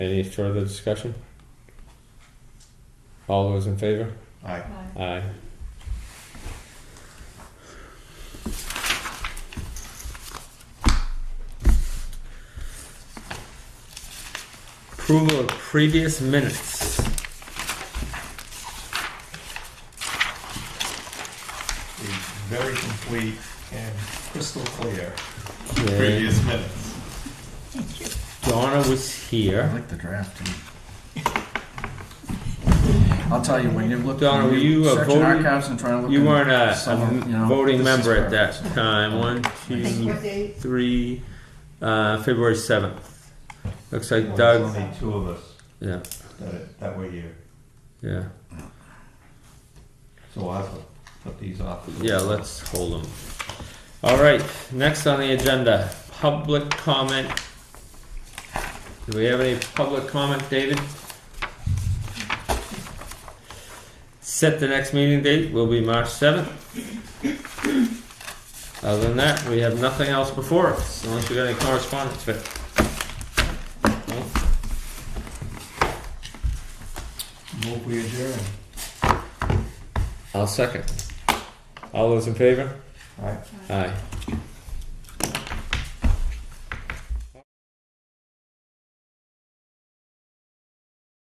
Any further discussion? All those in favor? Aye. Aye. Approval of previous minutes. It's very complete and crystal clear. Yeah. Previous minutes. Donna was I here. like the draft. too. I'll tell you, when you look, Donna, were when you, you uh, search in voting- archives and trying to look. You in weren't a, some a of- you know, voting this is member at where- that time. One, two, date? three, uh, February seventh. Looks like There's Doug, Only two of us yeah, that, that were here, yeah, so I'll put these off. yeah, let's hold them. All right, next on the agenda, public comment. Do we have any public comment, David? Set the next meeting date will be March seventh. Other than that, we have nothing else before us, unless you got any correspondence, Vic. No? Move we adjourn. I'll second. All those in favor? Aye. Aye.